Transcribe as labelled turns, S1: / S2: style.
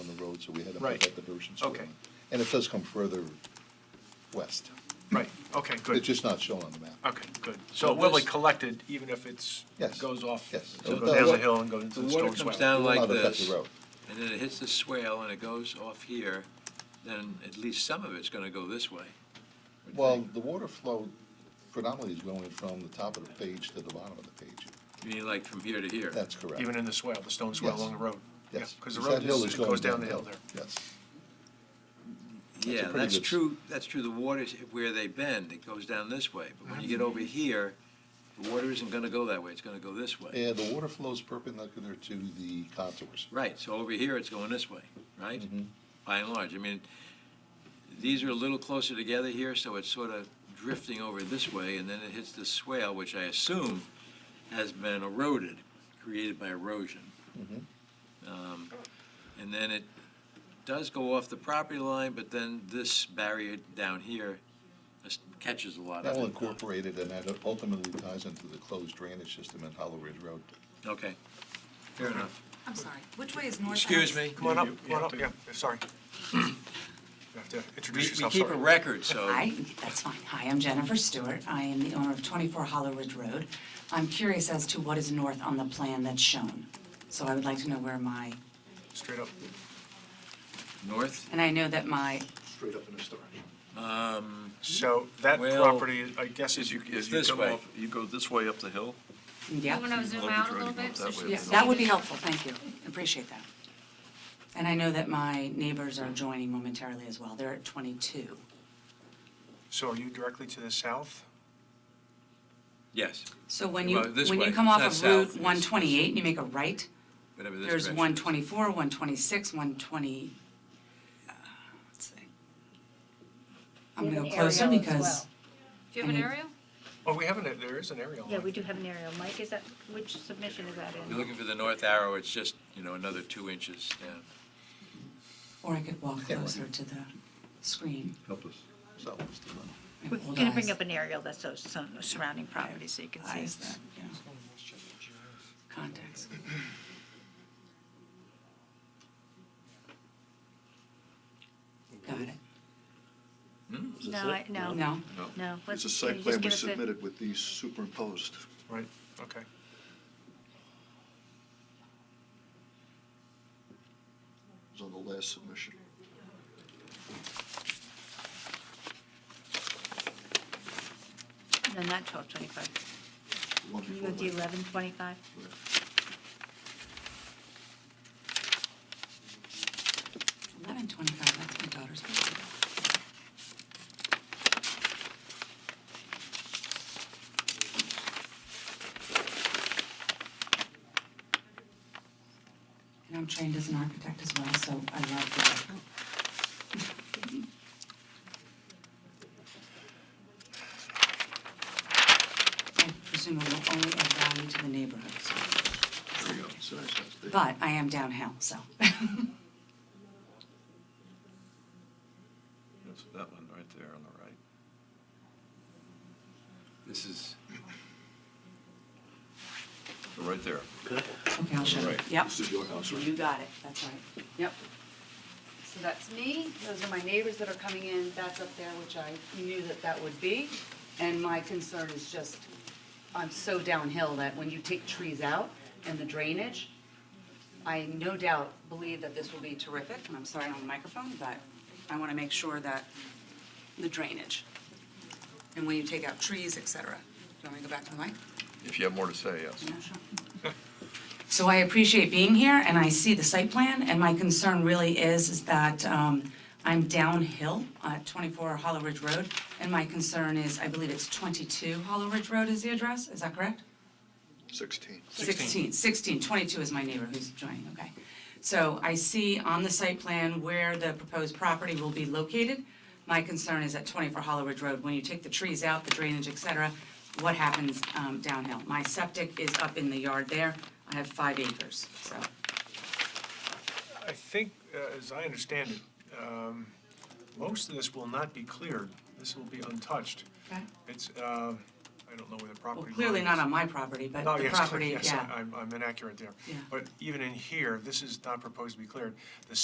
S1: it, so we had to
S2: Right.
S1: put that diversion swale
S2: Okay.
S1: in. And it does come further west.
S2: Right, okay,
S1: It's
S2: good.
S1: just not shown on the map.
S2: Okay, good. So it will be
S3: this-
S2: collected, even if it's,
S1: Yes,
S2: goes off,
S1: yes.
S2: so it
S1: The
S2: goes down
S1: wa-
S2: the hill and goes into the
S3: The water
S2: stone
S3: comes
S2: swell.
S3: down like
S1: Not affect the
S3: this,
S1: road.
S3: and then it hits the swale and it goes off here, then at least some of it's gonna go this way. wouldn't you
S1: Well,
S3: think?
S1: the water flow predominantly is going from the top of the page to the bottom of the page.
S3: You mean like from here to here?
S1: That's correct.
S2: Even in the swale, the stone swale
S1: Yes.
S2: along the road.
S1: Yes.
S2: Because the
S1: that
S2: road
S1: hill
S2: is, it
S1: going
S2: goes down the hill
S1: downhill.
S2: there.
S1: Yes,
S3: Yeah,
S1: pretty
S3: that's
S1: good-
S3: true, that's true, the water's where they bend, it goes down this way, but when you get over here, the water isn't gonna go that way, it's gonna go this way.
S1: and the water flows perpendicular to the contours.
S3: Right, so over here, it's going this way, right?
S2: Mm-hmm.
S1: Mhm.
S3: By and large, I mean, these are a little closer together here, so it's sort of drifting over this way, and then it hits this swale, which I assume has been eroded, created by erosion.
S1: Mhm.
S2: Mm-hmm.
S3: Um, And then it does go off the property line, but then this barrier down here just catches a lot
S1: That
S3: of
S1: will
S3: it.
S1: incorporate it, and that ultimately ties into the closed drainage system at Hollow Ridge Road.
S3: Okay, fair enough.
S4: I'm sorry, which way is north?
S3: Excuse
S4: House?
S3: me.
S2: Come on up,
S3: You-
S2: come on up, yeah, sorry. You have to
S3: We
S2: introduce
S3: we
S2: yourself,
S3: keep a
S2: sorry.
S3: record, so.
S4: Hi, that's fine. Hi, I'm Jennifer Stewart. I am the owner of 24 Hollow Ridge Road. I'm curious as to what is north on the plan that's shown. So I would like to know where my,
S2: Straight up.
S3: North?
S4: and I know that my,
S1: Straight up in the storage.
S3: Um,
S2: So that
S3: Well,
S2: property, I guess, is
S5: As you,
S3: It's
S5: as you
S3: this
S5: come
S3: way.
S5: off, you go this way up the hill.
S4: yeah,
S6: You want to zoom
S5: Love
S6: out
S5: the
S6: a little
S5: driving
S6: bit?
S5: up
S6: so
S5: that
S6: she
S5: way.
S6: can
S4: yeah,
S6: see
S4: that would
S6: the-
S4: be helpful, thank you. Appreciate that. And I know that my neighbors are joining momentarily as well. They're at 22.
S2: so are you directly to the south?
S3: Yes,
S4: So when you,
S3: Well, this
S4: when you
S3: way.
S4: come off
S3: It's
S4: of
S3: not south,
S4: Route
S3: it's-
S4: 128 and you make a right,
S3: whatever this
S4: There's
S3: direction
S4: one
S3: is.
S4: twenty-four, one twenty-six, one twenty, uh, let's see. I'm
S7: We
S4: gonna
S7: have
S4: go
S7: an
S4: closer
S7: aerial as
S4: because,
S6: Do you have an
S4: Mhm.
S6: aerial?
S2: Oh, we have an, there is an aerial.
S7: well. Yeah, we do have an aerial. Mike, is that, which submission is that
S3: You're
S7: in?
S3: looking for the north arrow, it's just, you know, another two inches down.
S4: or I could walk
S1: Yeah, right.
S4: closer to the screen.
S1: Help us, sell us the money.
S4: I have
S7: We're
S4: old
S7: going to bring
S4: eyes.
S7: up an aerial that's those some surrounding properties so you can
S4: Eyes
S7: see.
S4: that, yeah. Contacts. Got it.
S7: No, I- no.
S4: No?
S7: No.
S8: It's
S7: let's-
S8: a
S7: can
S8: site
S7: you
S8: plan
S7: just
S8: we
S7: give us the-
S8: submitted with these superimposed.
S2: Right, okay.
S8: It was on the last submission.
S7: No, not twelve twenty-five.
S8: the one
S7: Can you
S8: before
S7: go to
S8: that.
S7: eleven twenty-five?
S4: Eleven twenty-five, that's my daughter's birthday. And I'm trained as an architect as well, so I love that. I presume it will only add value to the neighborhood, so.
S8: There you go. It's a nice house. They-
S4: But I am downhill, so.
S5: That's that one right there on the right.
S3: This is,
S5: So right there.
S4: Okay, I'll show you.
S5: Right.
S4: Yep.
S8: This is your house, right?
S4: You got it, that's right.
S9: Yep. So that's me, those are my neighbors that are coming in, that's up there, which I knew that that would be. And my concern is just, I'm so downhill that when you take trees out and the drainage, I no doubt believe that this will be terrific,
S4: And I'm sorry on the microphone, but I want to make sure that the drainage, and when you take out trees, et cetera. Do you want me to go back to the mic?
S5: If you have more to say, yes.
S4: So I appreciate being here, and I see the site plan, and my concern really is, is that um, I'm downhill at 24 Hollow Ridge Road, and my concern is, I believe it's 22 Hollow Ridge Road is the address, is that correct?
S8: 16.
S4: 16, 16, 22 is my neighbor who's joining, okay. So I see on the site plan where the proposed property will be located. My concern is at 24 Hollow Ridge Road, when you take the trees out, the drainage, et cetera, what happens um, downhill? My septic is up in the yard there, I have five acres, so,
S2: I think, uh, as I understand it, um, most of this will not be cleared. This will be untouched.
S4: okay.
S2: It's, um, I don't know where the property
S4: Well,
S2: line is.
S4: clearly not on my property, but
S2: Oh,
S4: the
S2: yes,
S4: property, yeah.
S2: yes, I- I'm I'm inaccurate there.
S4: Yeah.
S2: But even in here, this is not proposed to be cleared. The